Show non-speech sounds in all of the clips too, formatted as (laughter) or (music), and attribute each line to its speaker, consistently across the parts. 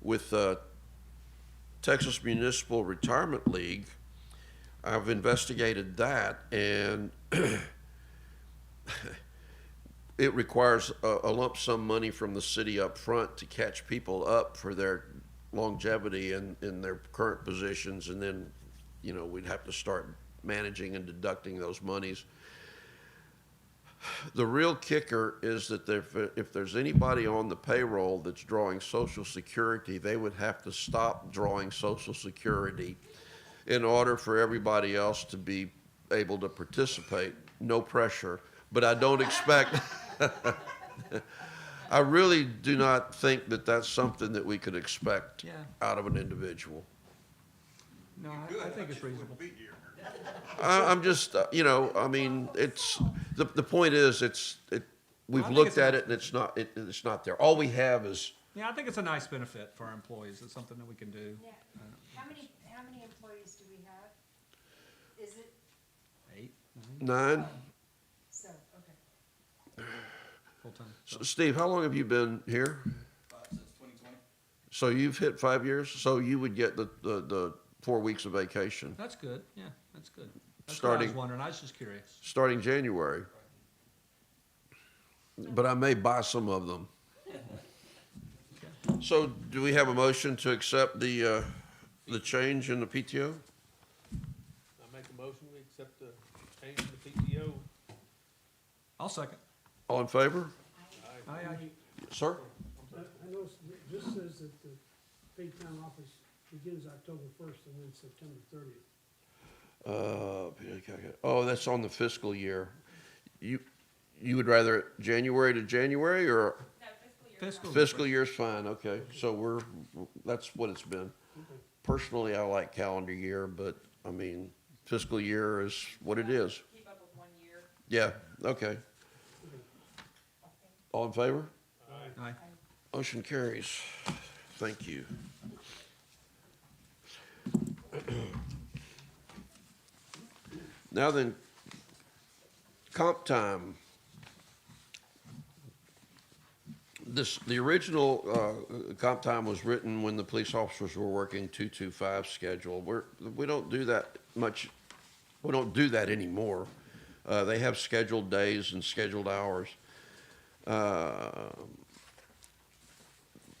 Speaker 1: with the Texas Municipal Retirement League. I've investigated that, and (clears throat) it requires a, a lump sum money from the city up front to catch people up for their longevity and in their current positions, and then, you know, we'd have to start managing and deducting those monies. The real kicker is that if, if there's anybody on the payroll that's drawing Social Security, they would have to stop drawing Social Security in order for everybody else to be able to participate. No pressure, but I don't expect. (laughs) I really do not think that that's something that we could expect
Speaker 2: Yeah.
Speaker 1: out of an individual.
Speaker 2: No, I, I think it's reasonable.
Speaker 1: I, I'm just, uh, you know, I mean, it's the the point is, it's it. We've
Speaker 2: I think
Speaker 1: looked
Speaker 2: it's
Speaker 1: at
Speaker 2: a-
Speaker 1: it and it's not it, it's not there. All we have is
Speaker 2: Yeah, I think it's a nice benefit for our employees. It's something that we can do.
Speaker 3: Yeah, how many, how many employees do we have? Is it,
Speaker 2: Eight
Speaker 1: nine.
Speaker 3: so, okay.
Speaker 2: full-time.
Speaker 1: So, Steve, how long have you been here?
Speaker 4: uh, since 2020.
Speaker 1: So you've hit five years. So you would get the the, the four weeks of vacation
Speaker 2: That's good. Yeah, that's good. That's what I was
Speaker 1: Starting-
Speaker 2: wondering. I was just curious.
Speaker 1: starting January. But I may buy some of
Speaker 2: (laughs)
Speaker 1: them. So do we have a motion to accept the uh, the change in the PTO?
Speaker 5: I make a motion, we accept the change in the PTO.
Speaker 2: I'll second.
Speaker 1: All in favor,
Speaker 2: Aye, aye.
Speaker 1: sir?
Speaker 6: I I know, it's- this says that the paid time office begins October first and then September thirtieth.
Speaker 1: Uh, oh, that's on the fiscal year. You, you would rather January to January or
Speaker 2: Fiscal.
Speaker 1: fiscal year's fine, okay, so we're, that's what it's been. Personally, I like calendar year, but I mean, fiscal year is what it is.
Speaker 7: keep up with one year.
Speaker 1: Yeah, okay. All in favor?
Speaker 2: Aye.
Speaker 1: Motion carries. Thank you. Now then, comp time. This, the original, uh, comp time was written when the police officers were working two-two-five schedule. We're, we don't do that much, we don't do that anymore. Uh, they have scheduled days and scheduled hours. Uh,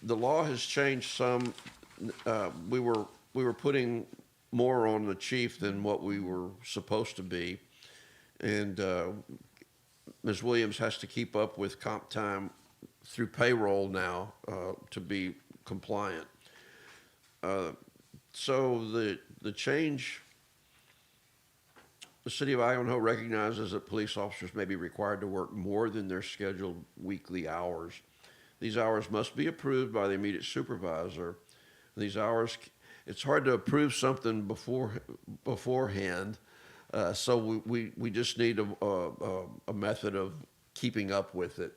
Speaker 1: the law has changed some. Uh, we were we were putting more on the chief than what we were supposed to be, and uh, Ms. Williams has to keep up with comp time through payroll now uh, to be compliant. Uh, so the the change. The city of Ivanhoe recognizes that police officers may be required to work more than their scheduled weekly hours. These hours must be approved by the immediate supervisor. These hours, it's hard to approve something before beforehand. Uh, so we, we, we just need a, a, a- a method of keeping up with it.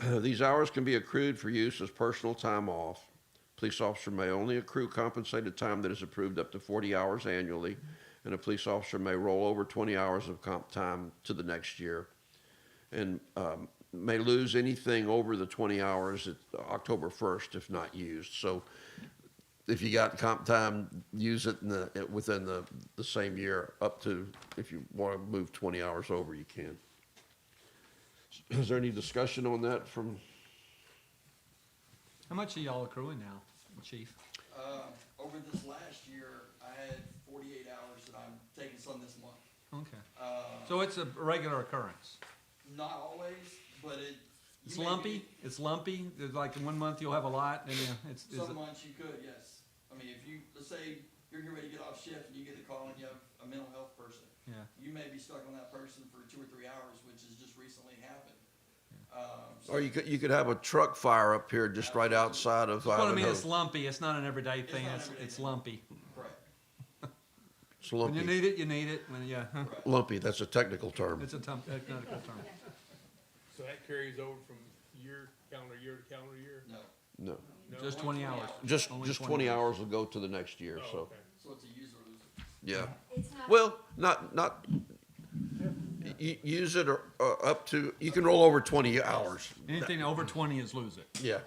Speaker 1: (clears throat) These hours can be accrued for use as personal time off. Police officer may only accrue compensated time that is approved up to 40 hours annually, and a police officer may roll over 20 hours of comp time to the next year and um, may lose anything over the 20 hours at October 1st if not used. So if you got comp time, use it in the, it- within the, the same year up to, if you want to move 20 hours over, you can. (clears throat) Is there any discussion on that from,
Speaker 2: How much are y'all accruing now, chief?
Speaker 4: Um, over this last year, I had 48 hours that I'm taking some this month.
Speaker 2: Okay.
Speaker 4: Uh,
Speaker 2: So it's a regular occurrence.
Speaker 4: not always, but it. you
Speaker 2: It's
Speaker 4: may
Speaker 2: lumpy. It's lumpy. There's like one month you'll have a lot and then it's,
Speaker 4: be-
Speaker 2: is
Speaker 4: Some
Speaker 2: it,
Speaker 4: months you could, yes. I mean, if you, let's say you're getting ready to get off shift and you get a call and you have a mental health person.
Speaker 2: yeah.
Speaker 4: You may be stuck on that person for two or three hours, which has just recently happened. Um, so
Speaker 1: or you could, you could have a truck fire up here just right outside of
Speaker 2: But I mean,
Speaker 1: Ivanhoe.
Speaker 2: it's lumpy. It's not an everyday thing.
Speaker 4: not
Speaker 2: It's,
Speaker 4: everyday
Speaker 2: it's
Speaker 4: thing.
Speaker 2: lumpy.
Speaker 4: Correct,
Speaker 1: It's
Speaker 2: When you
Speaker 1: lumpy.
Speaker 2: need it, you need it. When, yeah.
Speaker 4: correct.
Speaker 1: Lumpy, that's a technical term.
Speaker 2: It's a tum- technical term.
Speaker 5: So that carries over from year, calendar year to calendar year?
Speaker 4: No.
Speaker 1: No,
Speaker 5: No?
Speaker 2: Just
Speaker 4: Only
Speaker 2: 20 hours.
Speaker 1: just,
Speaker 2: Only
Speaker 1: just
Speaker 2: 20
Speaker 1: 20 hours will go to the next year,
Speaker 5: Oh,
Speaker 1: so,
Speaker 5: okay.
Speaker 4: So it's a use or lose.
Speaker 1: yeah.
Speaker 3: It's not,
Speaker 1: Well, not, not, y- y- use it or, uh, up to, you can roll over twenty hours.
Speaker 2: Anything over 20 is lose it.
Speaker 1: Yeah,